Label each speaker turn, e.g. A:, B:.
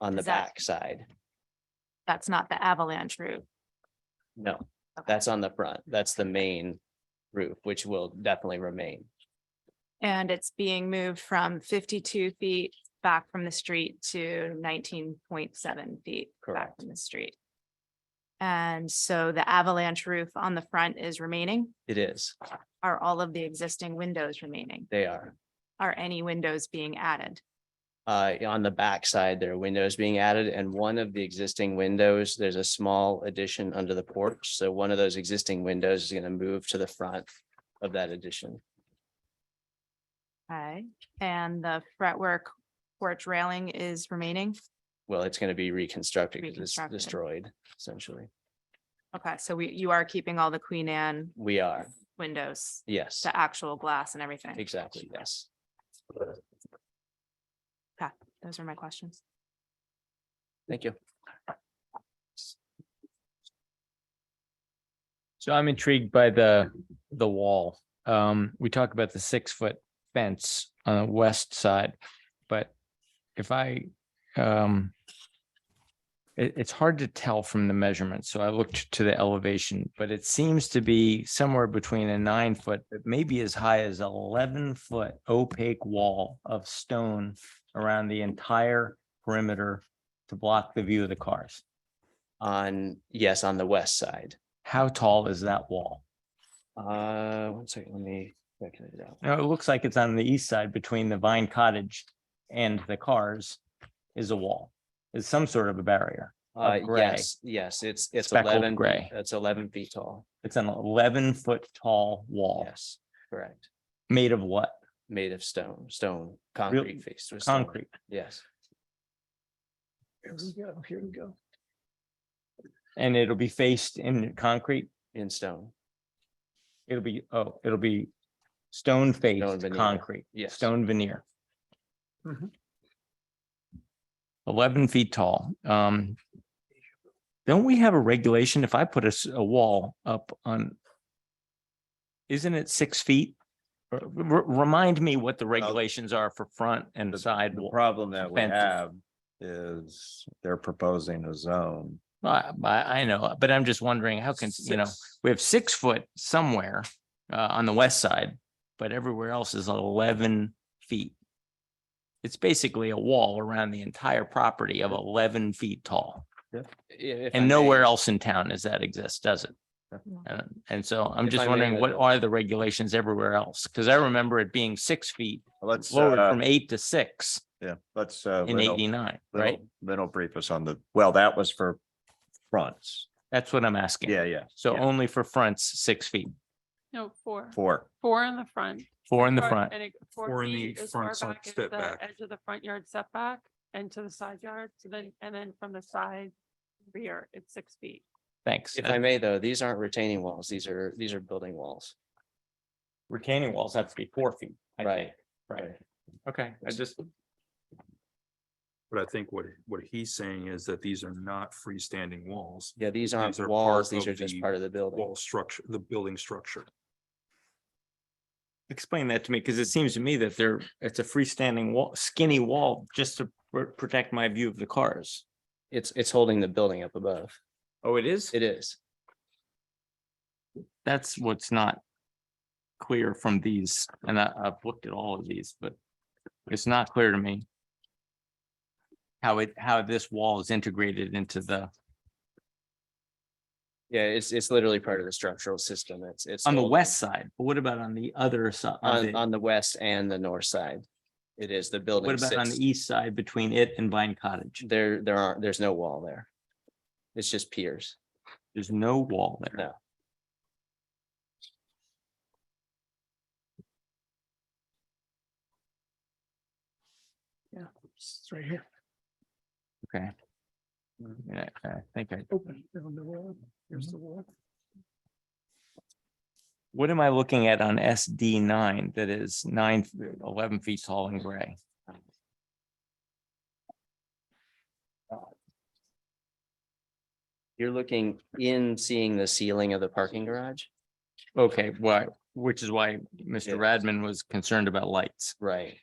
A: on the
B: Is that-
A: backside.
B: That's not the avalanche roof.
A: No,
B: Okay.
A: that's on the front. That's the main roof, which will definitely remain.
B: And it's being moved from fifty-two feet back from the street to nineteen point seven feet back
A: Correct.
B: from the street. And so the avalanche roof on the front is remaining.
A: It is.
B: Are all of the existing windows remaining?
A: They are.
B: Are any windows being added?
A: Uh, on the backside, there are windows being added and one of the existing windows, there's a small addition under the porch. So one of those existing windows is going to move to the front of that addition.
B: Okay, and the fretwork porch railing is remaining?
A: Well, it's going to be reconstructed because it's
B: Reconstructed.
A: destroyed essentially.
B: Okay, so we, you are keeping all the Queen Anne
A: We are,
B: windows,
A: yes,
B: the actual glass and everything?
A: exactly, yes.
B: Those are my questions.
A: Thank you.
C: So I'm intrigued by the, the wall. Um, we talk about the six foot fence on the west side, but if I, um, it, it's hard to tell from the measurements. So I looked to the elevation, but it seems to be somewhere between a nine foot, but maybe as high as 11 foot opaque wall of stone around the entire perimeter to block the view of the cars.
A: On, yes, on the west side.
C: How tall is that wall?
A: Uh, one second, let me calculate it out.
C: No, it looks like it's on the east side between the Vine Cottage and the cars is a wall, is some sort of a barrier.
A: Uh,
C: gray.
A: yes, yes, it's, it's
C: speckled
A: eleven,
C: Gray.
A: it's eleven feet tall.
C: It's an eleven foot tall wall
A: Yes, correct.
C: made of what?
A: Made of stone, stone, concrete faced with. stone.
C: Concrete.
A: Yes,
C: Here we go, here we go. And it'll be faced in concrete.
A: in stone.
C: It'll be, oh, it'll be stone faced
A: veneer,
C: concrete,
A: yes.
C: stone veneer. Eleven feet tall. Um. Don't we have a regulation if I put a, s- a wall up on? Isn't it six feet? R- r- remind me what the regulations are for front and side
D: The
C: wall.
D: problem that we
C: fences.
D: have is they're proposing a zone.
C: I, I I know, but I'm just wondering how can, you know,
D: Six.
C: we have six foot somewhere uh on the west side, but everywhere else is eleven feet. It's basically a wall around the entire property of eleven feet tall.
A: I- if I
C: And nowhere
A: may,
C: else in town does that exist, does it?
B: No.
C: And, and so I'm
A: If I
C: just
A: may,
C: wondering, what
A: uh,
C: are the regulations everywhere else? Because I remember it being six feet
D: Let's,
C: lowered
D: uh,
C: from eight to six
D: yeah, let's, uh,
C: in
D: Lynn will-
C: eighty-nine,
D: Lynn
C: right?
D: will- Lynn will brief us on the, well, that was for fronts.
C: That's what I'm asking.
D: Yeah, yeah,
C: So only for fronts, six feet,
E: No, four,
D: four.
E: four in the front.
C: four in the
E: Four-
C: front.
E: and it-
F: Four
E: Four
F: in
E: feet
F: the
E: as
F: front
E: far
F: side
E: back as
F: step
E: the
F: back.
E: edge of the front yard setback and to the side yard, so then, and then from the side rear, it's six feet.
C: Thanks.
A: If I may, though, these aren't retaining walls. These are, these are building walls.
C: retaining walls have to be four feet. I
A: Right.
C: think. Right. Okay, I just,
F: But I think what, what he's saying is that these are not freestanding walls,
A: Yeah, these aren't
F: are part
A: walls. These
F: of
A: are just
F: the
A: part of the building.
F: wall structure, the building structure.
C: explain that to me, because it seems to me that they're, it's a freestanding wall, skinny wall, just to pr- protect my view of the cars.
A: It's, it's holding the building up above.
C: Oh, it is?
A: It is.
C: That's what's not clear from these, and I, I've looked at all of these, but it's not clear to me how it, how this wall is integrated into the,
A: Yeah, it's, it's literally part of the structural system. It's, it's.
C: on the
A: holding-
C: west side, but what about on the other side?
A: On, on the west and the north side. It is the building.
C: What about on
A: sits-
C: the east side between it and Vine Cottage?
A: There, there aren't, there's no wall there. It's just piers.
C: There's no wall there.
A: No.
G: It's right here,
C: Okay. Yeah, I think I,
G: open, down the wall, here's the wall.
C: what am I looking at on SD nine that is nine, eleven feet tall and gray?
A: You're looking in, seeing the ceiling of the parking garage?
C: Okay, why, which is why
A: Yeah.
C: Mr. Radman was concerned about lights.
A: Right.